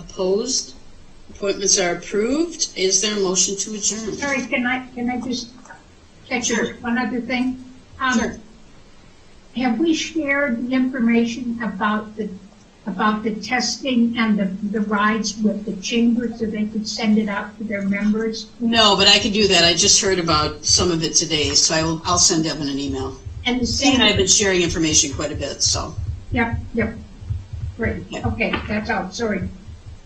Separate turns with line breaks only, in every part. Opposed? Appointments are approved. Is there a motion to adjourn?
Sorry, can I, can I just catch
Sure.
one other thing? Um,
Sure.
Have we shared the information about the, about the testing and the, the rides with the chamber so they could send it out to their members?
No, but I could do that. I just heard about some of it today, so I will, I'll send Evan an email.
And the
Sam and I have
same,
been sharing information quite a bit, so.
yep, yep. Great, okay, that's all, sorry.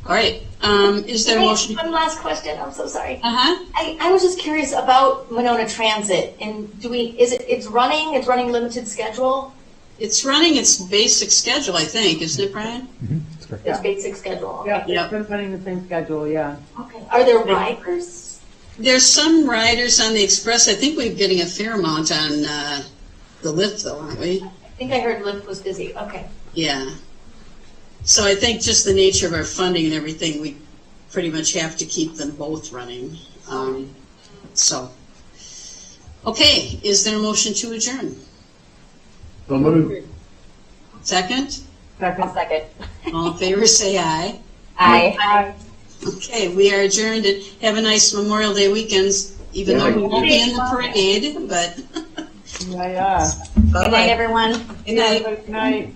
All right, um, is there a
Wait,
motion?
One last question, I'm so sorry.
Uh-huh.
I, I was just curious about Monona Transit, and do we, is it, it's running, it's running limited schedule?
It's running its basic schedule, I think, isn't it, Brian?
That's correct.
It's basic schedule?
Yeah,
Yep.
they've been running the same schedule, yeah.
Okay, are there riders?
There's some riders on the express. I think we're getting a fair amount on, uh, the lift though, aren't we?
I think I heard Lyft was busy, okay.
Yeah. So I think just the nature of our funding and everything, we pretty much have to keep them both running. Um, so. Okay, is there a motion to adjourn?
So moved.
Second?
Second.
second.
All in favor, say aye.
Aye.
Okay, we are adjourned and have a nice Memorial Day weekends, even though we won't be in the parade, but
Yeah, yeah.
Good night,
bye-bye.
everyone.
Good night.
Good night.